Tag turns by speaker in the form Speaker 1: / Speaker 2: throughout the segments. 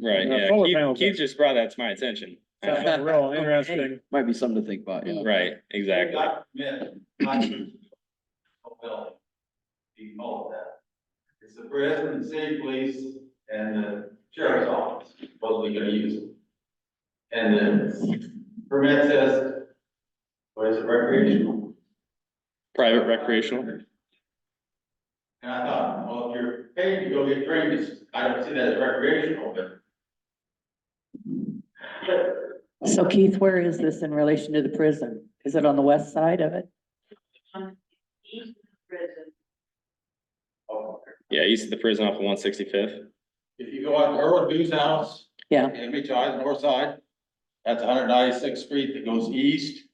Speaker 1: Right,
Speaker 2: Uh,
Speaker 1: yeah,
Speaker 2: solar
Speaker 1: Keith,
Speaker 2: panels
Speaker 1: Keith
Speaker 2: are-
Speaker 1: just brought that to my attention.
Speaker 2: Sounds like real interesting.
Speaker 3: Might be something to think about, yeah.
Speaker 1: Right, exactly.
Speaker 4: Not meant, not to fulfill the mold that. It's the president, the city police, and the sheriff's office, supposedly gonna use it. And then permit says, what is it, recreational?
Speaker 1: Private Uh, recreational,
Speaker 4: And I thought, well, if you're paid to go get drinks, I don't see that as recreational, but.
Speaker 5: So Keith, where is this in relation to the prison? Is it on the west side of it?
Speaker 6: east prison,
Speaker 4: Oh,
Speaker 1: yeah, east of the prison off of one sixty-fifth.
Speaker 4: If you go out to Earl Dew's house.
Speaker 5: Yeah.
Speaker 4: And meet you on the north side, that's one hundred ninety-sixth street that goes east.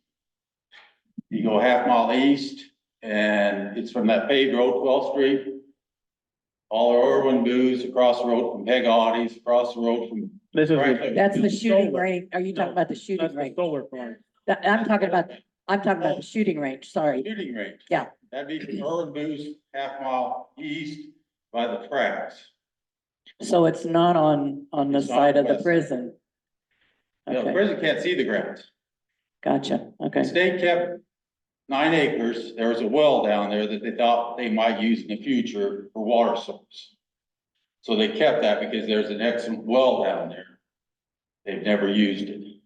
Speaker 4: You go a half mile east, and it's from that paved road, twelfth street. All the Irwin Dew's across the road from Peg Audie's, across the road from.
Speaker 2: This is, the-
Speaker 4: Franklin.
Speaker 5: That's the
Speaker 2: It's
Speaker 5: shooting
Speaker 2: solar.
Speaker 5: range. Are you talking about the
Speaker 2: that's
Speaker 5: shooting
Speaker 2: the
Speaker 5: range?
Speaker 2: solar farm.
Speaker 5: That- I'm talking about, I'm talking about the shooting range, sorry.
Speaker 4: Shooting range.
Speaker 5: Yeah.
Speaker 4: That'd be from Irwin Dew's, half mile east by the tracks.
Speaker 5: So it's not on, on the
Speaker 4: It's not
Speaker 5: side of the
Speaker 4: west.
Speaker 5: prison?
Speaker 4: You know, the
Speaker 5: Okay,
Speaker 4: prison can't see the ground.
Speaker 5: gotcha, okay.
Speaker 4: The state kept nine acres, there was a well down there that they thought they might use in the future for water source. So they kept that because there's an excellent well down there. They've never used it.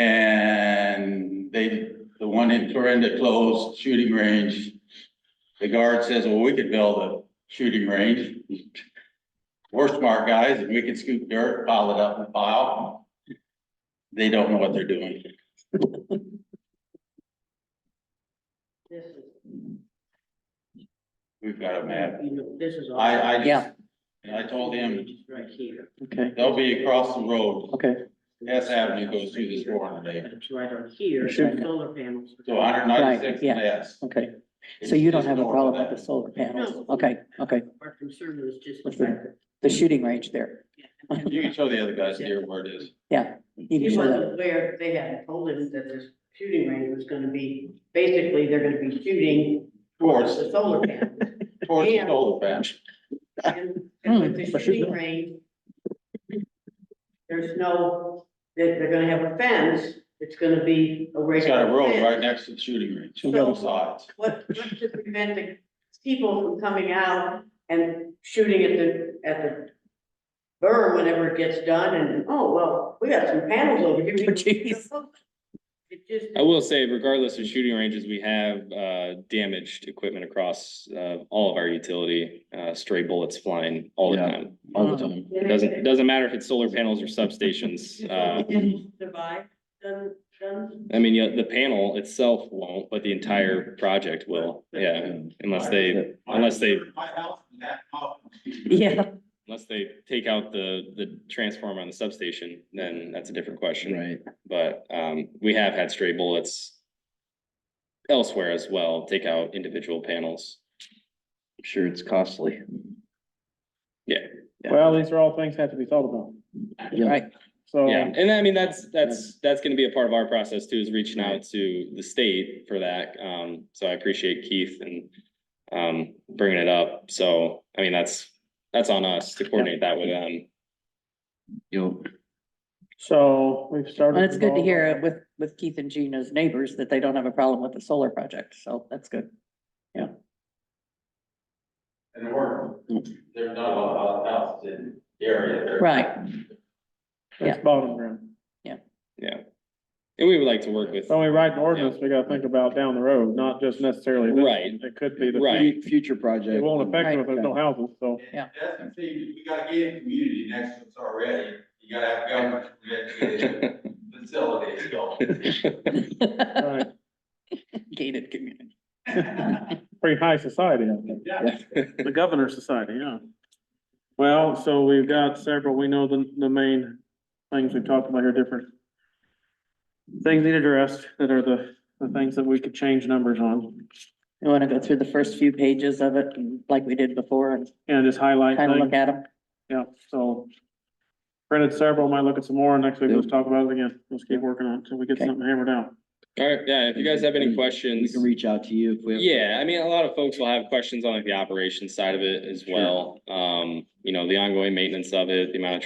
Speaker 4: And they, the one in Clarinda closed shooting range. The guard says, well, we could build a shooting range. We're smart guys and we could scoop dirt, pile it up and pile. They don't know what they're doing.
Speaker 6: this is,
Speaker 4: We've got a map.
Speaker 6: you know, this is. all-
Speaker 4: I, I just,
Speaker 5: Yeah.
Speaker 4: and I told him,
Speaker 6: Right here.
Speaker 5: Okay,
Speaker 4: they'll be across the road,
Speaker 5: okay,
Speaker 4: Hess Avenue goes through this door today.
Speaker 6: But It's right on here,
Speaker 5: Sure.
Speaker 6: and solar panels.
Speaker 4: so hundred ninety-six
Speaker 5: Right, yeah.
Speaker 4: and S.
Speaker 5: okay. So you don't have a problem with the solar panels?
Speaker 6: No.
Speaker 5: Okay, okay.
Speaker 6: Our concern was just the
Speaker 5: What's that?
Speaker 6: fact that.
Speaker 5: The shooting range there.
Speaker 6: yeah.
Speaker 4: You can show the other guys here where it is.
Speaker 5: You can
Speaker 6: He
Speaker 5: show that.
Speaker 6: wasn't aware, they hadn't told him that this shooting range was gonna be, basically, they're gonna be shooting towards the solar panels.
Speaker 4: Towards the
Speaker 6: Yeah.
Speaker 4: solar bench.
Speaker 6: And and with
Speaker 5: Hmm,
Speaker 6: the
Speaker 5: but she's
Speaker 6: shooting
Speaker 5: not.
Speaker 6: range, there's no, they're, they're gonna have a fence, it's gonna be a
Speaker 4: It's
Speaker 6: regular
Speaker 4: got a road right
Speaker 6: fence.
Speaker 4: next to the shooting range,
Speaker 6: So-
Speaker 4: both sides.
Speaker 6: What, what's to prevent the people from coming out and shooting at the, at the burr whenever it gets done and, oh, well, we got some panels over here. we can-
Speaker 5: Jeez.
Speaker 6: It just,
Speaker 1: I will say regardless of shooting ranges, we have, uh, damaged equipment across, uh, all of our utility, uh, stray bullets flying all the
Speaker 3: Yeah.
Speaker 1: time.
Speaker 3: All the time.
Speaker 1: It doesn't, it doesn't matter if it's solar panels or substations, uh,
Speaker 6: Survive, doesn't, doesn't.
Speaker 1: I mean, yeah, the panel itself won't, but the entire project will, yeah, unless they, unless they,
Speaker 4: My house and that house.
Speaker 5: Yeah,
Speaker 1: unless they take out the, the transformer on the substation, then that's a different question.
Speaker 3: Right,
Speaker 1: But um, we have had stray bullets elsewhere as well, take out individual panels.
Speaker 3: I'm sure it's costly. Yeah.
Speaker 2: Well, these are all things have to be thought about.
Speaker 3: Yeah.
Speaker 5: right.
Speaker 3: Oh.
Speaker 2: So,
Speaker 1: Yeah, and I mean, that's, that's, that's gonna be a part of our process too, is reaching out to the state for that. Um, so I appreciate Keith and um, bringing it up. So, I mean, that's, that's on us to coordinate that with them.
Speaker 3: You'll,
Speaker 2: so we've started.
Speaker 5: And it's good to
Speaker 2: ball
Speaker 5: hear
Speaker 2: rolling.
Speaker 5: with, with Keith and Gina's neighbors that they don't have a problem with the solar project, so that's good.
Speaker 4: And they weren't, there's not a lot of houses in the area. They're-
Speaker 5: Right.
Speaker 2: That's bottom ground.
Speaker 1: And we would like to work with,
Speaker 2: So we write an ordinance, we gotta think about down the road, not just necessarily. this.
Speaker 1: Right.
Speaker 2: It could be the.
Speaker 1: Right.
Speaker 3: Fu- future project.
Speaker 2: It won't affect them if there's
Speaker 3: Right.
Speaker 2: no houses, so.
Speaker 4: That's the thing, we gotta get a community next to us already. You gotta have government, you gotta get a facility going.
Speaker 2: Right.
Speaker 5: Gated community.
Speaker 2: Pretty high society, I think.
Speaker 4: Yeah.
Speaker 2: The governor's society, yeah. Well, so we've got several, we know the, the main things we've talked about here, different things need addressed that are the, the things that we could change numbers on
Speaker 5: You wanna go through the first few pages of it, and- like we did before, and
Speaker 2: and just highlight
Speaker 5: kind of look
Speaker 2: things.
Speaker 5: at them?
Speaker 2: Yeah, so printed several, might look at some more, and next week let's talk about it again. Let's keep working on it till we get
Speaker 5: Okay.
Speaker 2: something hammered out.
Speaker 1: All right, yeah, if you guys have any
Speaker 3: We
Speaker 1: questions,
Speaker 3: can reach out to you if we have.
Speaker 1: yeah, I mean, a lot of folks will have questions on like the operations side of it as well. Um, you know, the ongoing maintenance of it, the amount of